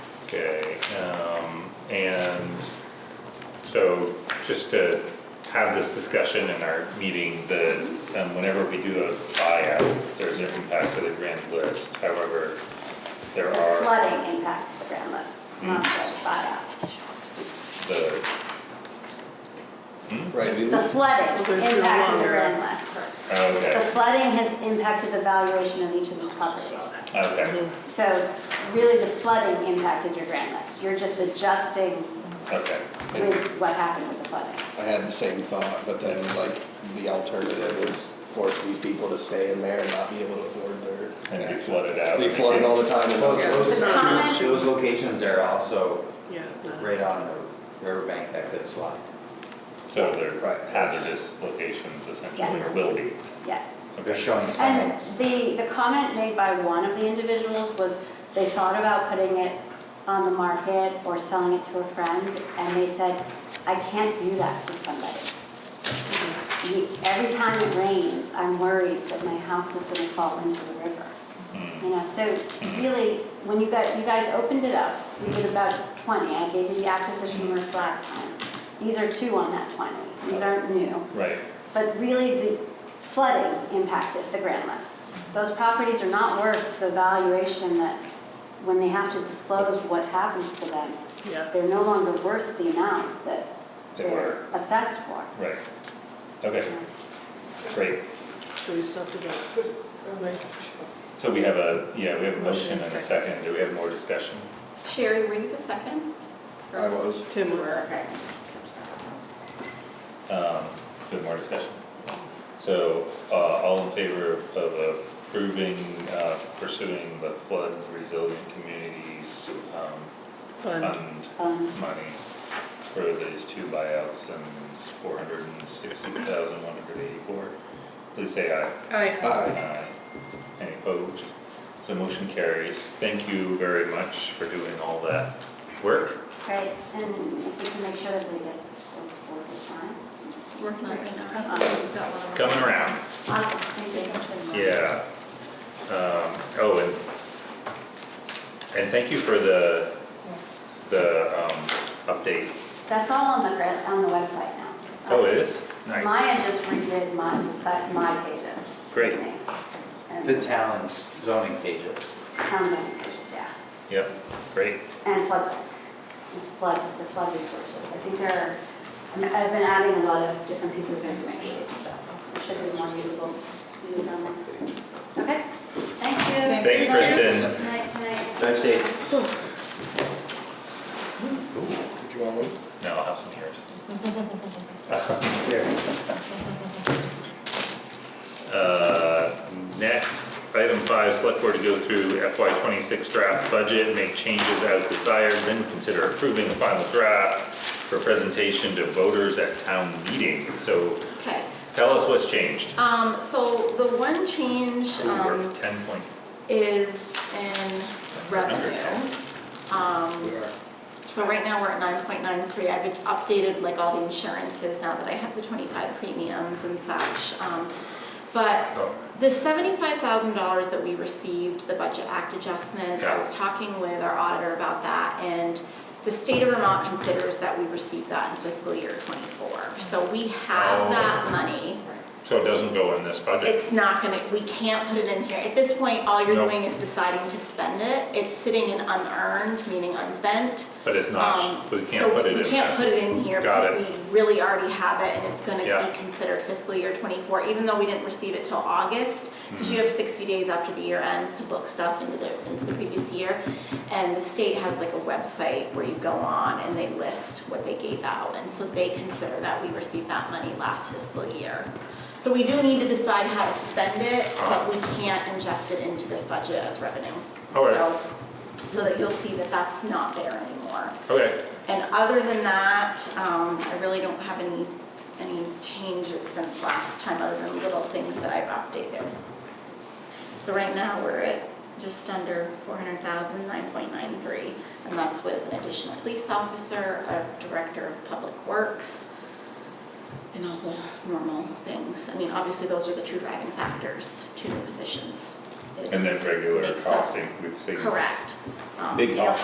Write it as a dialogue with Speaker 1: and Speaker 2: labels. Speaker 1: Okay, um, and so just to have this discussion in our meeting, the, um, whenever we do a buyout, there's an impact to the grand list, however, there are
Speaker 2: Flooding impacts the ground
Speaker 3: Hmm.
Speaker 2: list, not the
Speaker 1: the,
Speaker 2: buyout.
Speaker 4: Right, we,
Speaker 2: The
Speaker 4: lose-
Speaker 2: flooding
Speaker 3: There's no
Speaker 2: impacted the
Speaker 3: longer-
Speaker 2: ground list. The
Speaker 1: oh, okay,
Speaker 2: flooding has impacted the valuation of each of these properties.
Speaker 1: okay,
Speaker 2: So really, the flooding impacted your grand list. You're just adjusting
Speaker 1: okay.
Speaker 2: with what happened with the flooding.
Speaker 4: I had the same thought, but then like the alternative is force these people to stay in there and not be able to afford their.
Speaker 1: And be flooded out.
Speaker 4: They flooded all the time and
Speaker 5: Well,
Speaker 4: those,
Speaker 5: Those
Speaker 2: Comment?
Speaker 5: those locations are also
Speaker 3: Yeah. not-
Speaker 5: right on the riverbank that could slide.
Speaker 1: So they're
Speaker 4: Right.
Speaker 1: hazardous locations essentially,
Speaker 2: Yes.
Speaker 1: or will be.
Speaker 2: Yes.
Speaker 5: They're showing
Speaker 2: And
Speaker 5: signs.
Speaker 2: the, the comment made by one of the individuals was they thought about putting it on the market or selling it to a friend, and they said, I can't do that to somebody. You- Every time it rains, I'm worried that my house is gonna fall into the river.
Speaker 1: Hmm.
Speaker 2: You know, so really, when you got, you guys opened it up, we did about twenty, I gave you the acquisition list last time. These are two on that twenty, these aren't new.
Speaker 1: Right,
Speaker 2: But really, the flooding impacted the grand list. Those properties are not worth the valuation that, when they have to disclose what happens to them,
Speaker 3: Yeah.
Speaker 2: they're no longer worth the amount that
Speaker 1: They were.
Speaker 2: they're assessed for.
Speaker 1: right. Okay, great.
Speaker 3: So we still have to vote.
Speaker 1: So we have a, yeah, we have a motion
Speaker 3: Motion and
Speaker 1: and a
Speaker 3: second.
Speaker 1: second. Do we have more discussion?
Speaker 6: Sherry, were you the second?
Speaker 4: I was.
Speaker 3: Tim
Speaker 6: You
Speaker 3: was.
Speaker 6: were, okay.
Speaker 1: Um, we have more discussion? So, uh, all in favor of approving, uh, pursuing the flood resilient communities, um,
Speaker 3: Fun.
Speaker 1: fund
Speaker 2: Um,
Speaker 1: money for these two buyouts and it's four hundred and sixty thousand, one hundred eighty-four? Please say aye.
Speaker 3: Aye.
Speaker 4: Aye.
Speaker 1: Aye. Any opposed? So motion carries. Thank you very much for doing all that work.
Speaker 2: Right, and if we can make sure that we get those scores this time.
Speaker 6: Working on it right now.
Speaker 3: Uh,
Speaker 2: Nice.
Speaker 3: um,
Speaker 6: We've got one.
Speaker 1: Coming around.
Speaker 2: Awesome, thank you.
Speaker 1: Yeah. Um, oh, and, and thank you for the,
Speaker 2: Yes.
Speaker 1: the, um, update.
Speaker 2: That's all on the, gra- on the website now.
Speaker 1: Oh, it is? Nice.
Speaker 2: Maya just redid my, my pages.
Speaker 1: Great.
Speaker 2: And-
Speaker 5: The town's zoning pages.
Speaker 2: Town zoning pages, yeah.
Speaker 1: Yep, great.
Speaker 2: And flood, it's flood, the flood resources. I think there are, I mean, I've been adding a lot of different pieces of information, so it should be more usable. usable. Okay, thank you.
Speaker 1: Thanks, Kristen.
Speaker 2: Night, night.
Speaker 5: Drive safe.
Speaker 4: Did you want one?
Speaker 1: No, I'll have some yours.
Speaker 5: There.
Speaker 1: Uh, next, item five, select board to go through FY twenty-six draft budget, make changes as desired, then consider approving the final draft for presentation to voters at town meeting. So
Speaker 6: Okay,
Speaker 1: tell us what's changed.
Speaker 6: um, so the one change,
Speaker 1: Ooh,
Speaker 6: um,
Speaker 1: we're ten point,
Speaker 6: is in revenue. Um,
Speaker 4: We are.
Speaker 6: So right now, we're at nine point nine three, I've updated like all the insurances now that I have the twenty-five premiums and such. Um, But
Speaker 1: oh,
Speaker 6: The seventy-five thousand dollars that we received, the Budget Act adjustment,
Speaker 1: Yeah.
Speaker 6: I was talking with our auditor about that, and the state of Vermont considers that we received that in fiscal year twenty-four. So we
Speaker 1: Oh.
Speaker 6: have that money.
Speaker 1: so it doesn't go in this budget?
Speaker 6: It's not gonna, we can't put it in here. At this point, all you're
Speaker 1: Nope.
Speaker 6: doing is deciding to spend it. It's sitting in unearned, meaning unspent.
Speaker 1: But it's not,
Speaker 6: Um,
Speaker 1: we can't put it in
Speaker 6: So we can't
Speaker 1: this.
Speaker 6: put it in here
Speaker 1: Got
Speaker 6: because we really already have it and it's gonna
Speaker 1: Yeah.
Speaker 6: be considered fiscal year twenty-four, even though we didn't receive it till August. Because
Speaker 1: Mm-hmm.
Speaker 6: you have sixty days after the year ends to book stuff into the, into the previous year. And the state has like a website where you go on and they list what they gave out. And so they consider that we received that money last fiscal year. So we do need to decide how to spend it,
Speaker 1: Uh-huh.
Speaker 6: but we can't inject it into this budget as revenue.
Speaker 1: All right.
Speaker 6: So- So that you'll see that that's not there anymore.
Speaker 1: Okay,
Speaker 6: And other than that, um, I really don't have any, any changes since last time, other than little things that I've updated. So right now, we're at just under 400,000, 9.93, and that's with an additional police officer, a director of public works, and all the normal things. I mean, obviously, those are the two driving factors to the positions. is-
Speaker 1: and then regular
Speaker 6: makes up-
Speaker 1: costing, we've seen.
Speaker 6: Correct. Um,
Speaker 1: Big
Speaker 6: you know,
Speaker 1: cost